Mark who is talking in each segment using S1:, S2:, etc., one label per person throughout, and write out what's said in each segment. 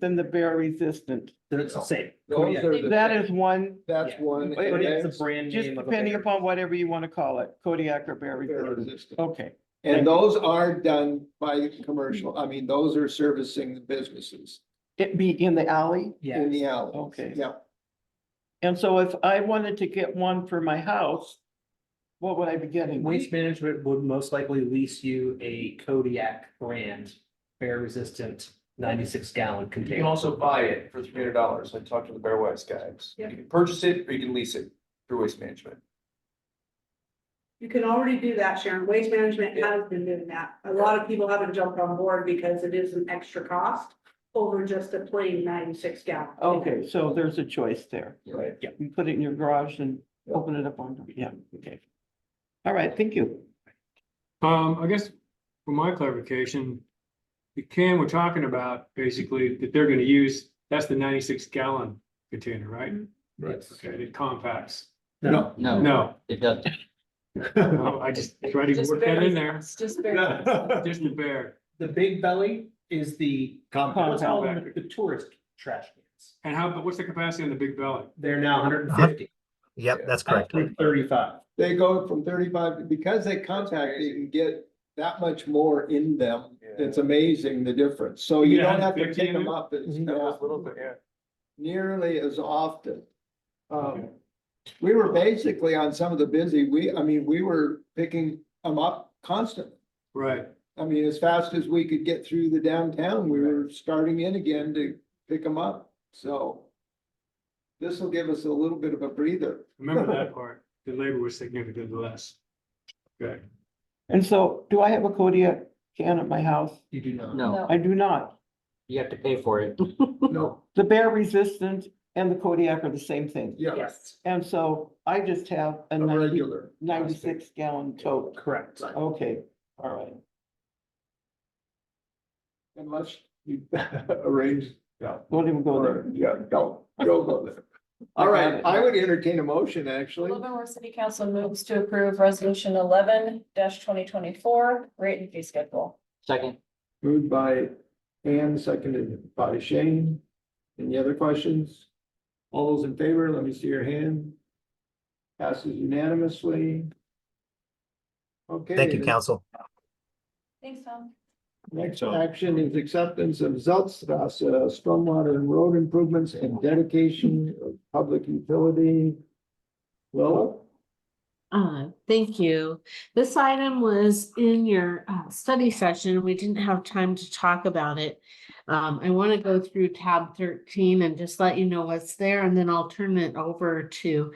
S1: than the bear resistant.
S2: They're the same.
S3: Those
S2: Kodiak-
S3: are the-
S1: That is one,
S3: That's
S2: Oh, Yeah.
S3: one.
S1: Wait,
S3: and
S2: Kodiak's
S3: that's-
S2: a brand
S1: just
S2: name of a
S1: depending
S2: bear.
S1: upon whatever you want to call it, Kodiak or bear resistant. Okay,
S3: And those are done by commercial, I mean, those are servicing the businesses
S1: it be in the alley.
S3: in
S2: Yeah,
S3: the alley.
S1: Okay.
S3: Yeah,
S1: And so if I wanted to get one for my house, what would I be getting?
S2: waste management would most likely lease you a Kodiak brand bear resistant ninety-six gallon
S4: You can
S2: container.
S4: also buy it for three hundred dollars. I talked to the Bear Wise guys. You can purchase it or you can lease it through Waste Management.
S5: You can already do that, Sharon. Waste management has been doing that. A lot of people haven't jumped on board because it is an extra cost over just a plain ninety-six gallon.
S1: Okay, so there's a choice there.
S4: Right.
S1: You put it in your garage and
S4: Yeah.
S1: open it up on, yeah, okay. All right, thank you.
S6: Um, I guess for my clarification, the can we're talking about basically that they're gonna use, that's the ninety-six gallon container, right?
S2: Right.
S6: Okay, it compacts.
S2: No,
S7: No,
S6: No,
S7: it doesn't.
S6: no, I just tried to work that in there,
S8: It's just very.
S6: just the bear.
S2: the big belly is the, what's
S1: Compound.
S2: called the the tourist trash cans.
S6: And how, but what's the capacity on the big belly?
S2: They're now hundred and fifty.
S9: Yep, that's correct.
S2: Thirty-five.
S3: they go from thirty-five, because they contact, you can get that much more in them. It's amazing the difference. So you
S6: Yeah,
S3: don't have to
S6: 150
S3: pick
S6: in
S3: them
S6: it?
S3: up as,
S4: Yeah, it's a little bit, yeah.
S3: nearly as often. Um, we were basically on some of the busy, we, I mean, we were picking them up constantly.
S6: Right,
S3: I mean, as fast as we could get through the downtown, we were starting in again to pick them up, so. This will give us a little bit of a breather.
S6: remember that part, the labor was significantly less. Okay,
S1: And so do I have a Kodiak can at my house?
S2: You do not.
S7: No,
S1: I do not.
S7: you have to pay for it.
S3: No,
S1: The bear resistant and the Kodiak are the same thing.
S3: yeah,
S8: Yes.
S1: And so I just have a
S3: a
S1: 90 96
S3: regular.
S1: gallon tote.
S2: Correct.
S1: Okay, all right.
S3: Unless you arrange,
S1: Don't even go there.
S3: or, yeah, don't, don't go there. All right, I would entertain a motion, actually.
S8: Livermore City Council moves to approve resolution eleven twenty twenty-four, rate and fee schedule.
S7: Second,
S3: Moved by Ann, seconded by Shane. Any other questions? All those in favor, let me see your hand. Passes unanimously. Okay.
S9: Thank you,
S3: the
S9: council.
S8: Thanks, Tom.
S3: Next action is acceptance of Zeltstrasse uh, stormwater and road improvements and dedication of public utility. Lola?
S10: Uh, thank you. This item was in your uh, study session. We didn't have time to talk about it. Um, I want to go through tab thirteen and just let you know what's there, and then I'll turn it over to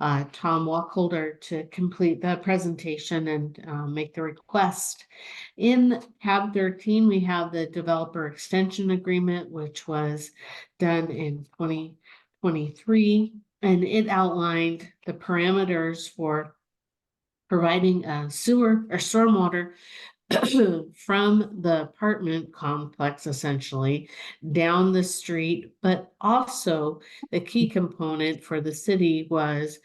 S10: uh, Tom Walkholder to complete the presentation and uh, make the request. In tab thirteen, we have the developer extension agreement, which was done in twenty twenty-three. And it outlined the parameters for providing uh, sewer or stormwater from the apartment complex essentially down the street, but also the key component for the city was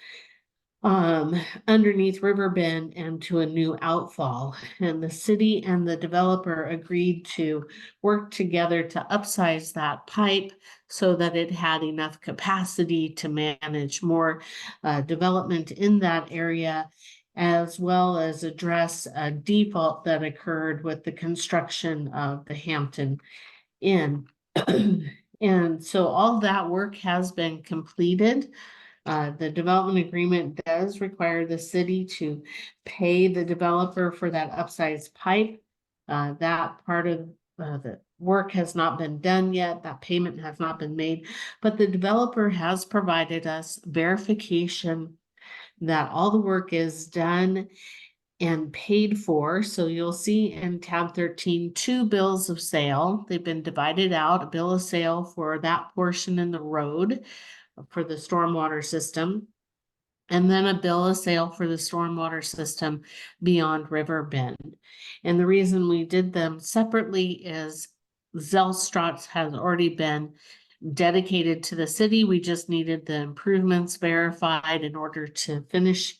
S10: um, underneath River Bend and to a new outfall. And the city and the developer agreed to work together to upsize that pipe so that it had enough capacity to manage more uh, development in that area, as well as address a default that occurred with the construction of the Hampton Inn. And so all that work has been completed. Uh, The development agreement does require the city to pay the developer for that upsized pipe. Uh, That part of uh, the work has not been done yet, that payment has not been made, but the developer has provided us verification that all the work is done and paid for. So you'll see in tab 13, two bills of sale. They've been divided out, a bill of sale for that portion in the road for the stormwater system. And then a bill of sale for the stormwater system beyond River Bend. And the reason we did them separately is Zellstrops has already been dedicated to the city. We just needed the improvements verified in order to finish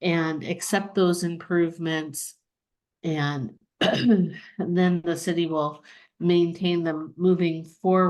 S10: and accept those improvements. And then the city will maintain them moving forward.